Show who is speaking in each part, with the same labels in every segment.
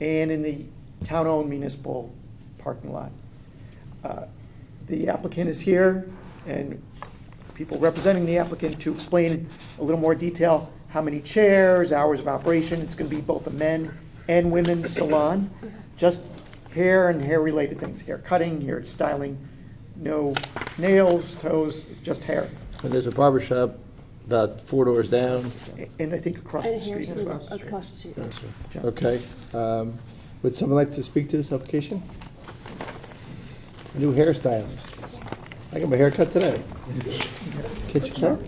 Speaker 1: and in the town-owned municipal parking lot. Uh, The applicant is here, and people representing the applicant to explain in a little more detail how many chairs, hours of operation, it's gonna be both a men and women's salon, just hair and hair-related things, hair cutting, hair styling, no nails, toes, just hair,
Speaker 2: And there's a barber shop about four doors down.
Speaker 1: and I think across the
Speaker 3: And
Speaker 1: street
Speaker 3: here's
Speaker 1: as well.
Speaker 3: the, across the street.
Speaker 4: Okay. um, Would someone like to speak to this application? New hairstylist. I got my hair cut today. Kitchen sharp?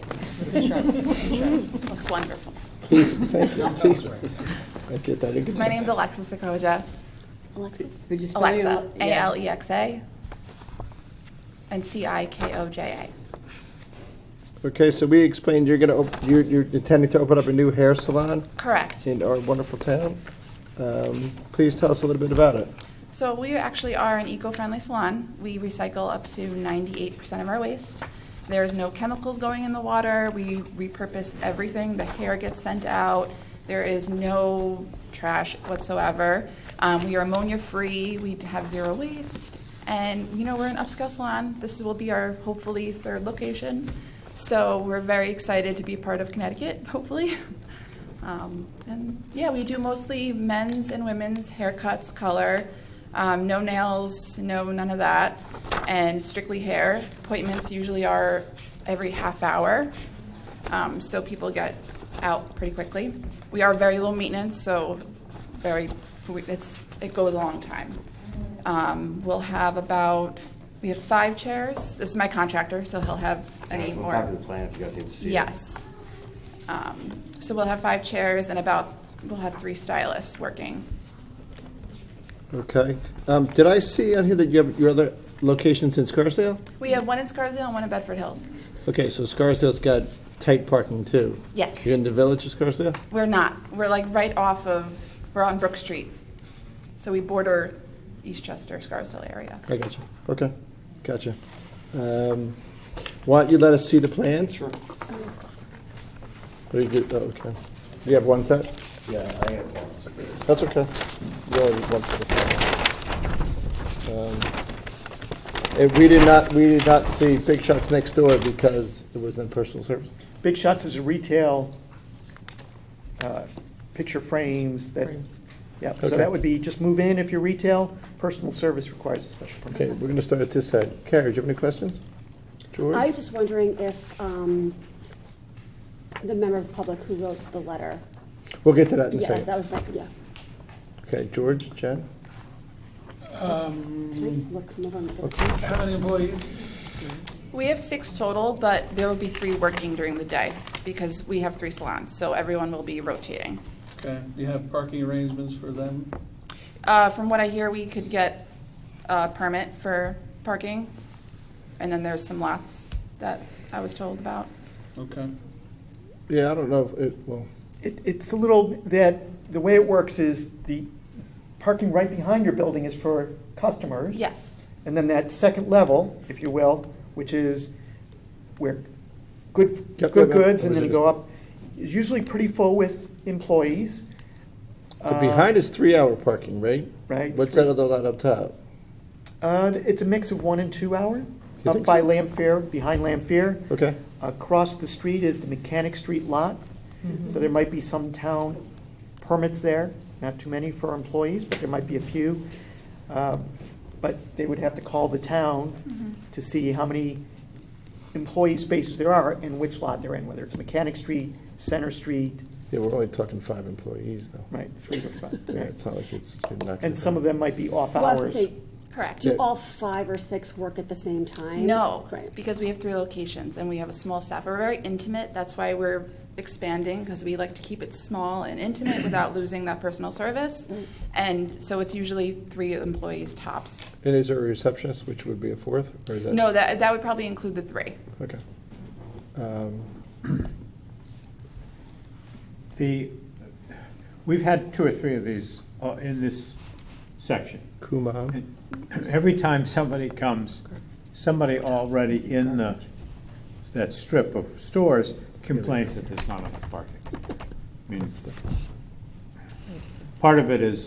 Speaker 5: Looks wonderful.
Speaker 4: Please, thank you, please. I get that, I get
Speaker 5: My
Speaker 4: that.
Speaker 5: name's Alexis Sakoja,
Speaker 3: Alexis?
Speaker 6: Could you spell your
Speaker 5: Alexa,
Speaker 6: la-
Speaker 5: A
Speaker 6: yeah.
Speaker 5: L E X A, and C I K O J A.
Speaker 4: Okay, so we explained you're gonna, op- you're you're intending to open up a new hair salon
Speaker 5: Correct.
Speaker 4: in our wonderful town. Um, Please tell us a little bit about it.
Speaker 5: So we actually are an eco-friendly salon. We recycle up to 98% of our waste. There's no chemicals going in the water. We repurpose everything. The hair gets sent out. There is no trash whatsoever. Um, we are ammonia-free. We have zero waste. And, you know, we're an upscale salon. This will be our hopefully third location. So we're very excited to be part of Connecticut, hopefully. Um, and yeah, we do mostly men's and women's haircuts, color, um, no nails, no none of that, and strictly hair. Appointments usually are every half hour, um, so people get out pretty quickly. We are very low maintenance, so very it's it goes a long time. Um, we'll have about we have five chairs. This is my contractor, so he'll have any
Speaker 7: We'll
Speaker 5: more.
Speaker 7: copy the plan if you guys need to see it.
Speaker 5: Yes. Um, So we'll have five chairs and about, we'll have three stylists working.
Speaker 4: Okay. Um, Did I see on here that you have your other locations in Scarsdale?
Speaker 5: We have one in Scarsdale and one in Bedford Hills.
Speaker 4: Okay, so Scarsdale's got tight parking too.
Speaker 5: Yes.
Speaker 4: You're in the village of Scarsdale?
Speaker 5: We're not, we're like right off of, we're on Brook Street. So we border Eastchester, Scarsdale area.
Speaker 4: I gotcha. Okay, gotcha. Um, Why don't you let us see the plans? Sure. Very good, oh, okay. You have one set?
Speaker 7: Yeah, I have one.
Speaker 4: That's okay. You only have one set. Um, And we did not, we did not see Big Shots next door because it was in personal service.
Speaker 1: Big Shots is a retail, uh, picture frames that, yeah, so
Speaker 4: Okay.
Speaker 1: that would be, just move in if you're retail, personal service requires a special permit.
Speaker 4: Okay, we're gonna start at this side. Carrie, do you have any questions? George?
Speaker 3: I was just wondering if, um, the member of the public who wrote the letter.
Speaker 4: We'll get to that in a
Speaker 3: Yeah, that
Speaker 4: second.
Speaker 3: was my, yeah.
Speaker 4: Okay, George, Jen?
Speaker 3: Can I just look, come over and look at
Speaker 4: Okay.
Speaker 8: Um, How many employees?
Speaker 5: We have six total, but there will be three working during the day because we have three salons, so everyone will be rotating.
Speaker 8: Okay, do you have parking arrangements for them?
Speaker 5: Uh, From what I hear, we could get a permit for parking, and then there's some lots that I was told about.
Speaker 8: Okay.
Speaker 4: Yeah, I don't know if it, well,
Speaker 1: It, it's a little, that, the way it works is the parking right behind your building is for customers.
Speaker 5: Yes,
Speaker 1: And then that second level, if you will, which is where good,
Speaker 4: Yep,
Speaker 1: good
Speaker 4: yep, yep.
Speaker 1: goods and
Speaker 4: That
Speaker 1: then
Speaker 4: was it.
Speaker 1: go up, is usually pretty full with employees.
Speaker 4: but behind is three-hour parking, right?
Speaker 1: Uh, Right.
Speaker 4: What's that other lot up top?
Speaker 1: Uh, it's a mix of one and two hour, up
Speaker 4: think
Speaker 1: by
Speaker 4: so?
Speaker 1: Lamfair, behind Lamfair.
Speaker 4: Okay,
Speaker 1: Across the street is the Mechanic Street lot,
Speaker 3: Mm-hmm.
Speaker 1: so there might be some town permits there, not too many for employees, but there might be a few. Um, But they would have to call the
Speaker 3: Mm-hmm.
Speaker 1: town to see how many employee spaces there are and which lot they're in, whether it's Mechanic Street, Center Street,
Speaker 4: yeah, we're only talking five employees though.
Speaker 1: right, three to five.
Speaker 4: Yeah, it's not like it's. you're not gonna
Speaker 1: And some
Speaker 4: have-
Speaker 1: of them might be off
Speaker 3: Well, I was gonna
Speaker 1: hours.
Speaker 3: say,
Speaker 5: correct.
Speaker 3: do all five or six work at the same time?
Speaker 5: No,
Speaker 3: Right.
Speaker 5: because we have three locations and we have a small staff. We're very intimate. That's why we're expanding because we like to keep it small and intimate without losing that personal service. And so it's usually three employees tops.
Speaker 4: And is there a receptionist, which would be a fourth, or is that?
Speaker 5: No, that, that would probably include the three.
Speaker 4: Okay. Um,
Speaker 9: The, we've had two or three of these uh, in this section.
Speaker 4: Kumon,
Speaker 9: Every time somebody comes, somebody already in the, that strip of stores complains that there's not enough parking. I mean, Part of it is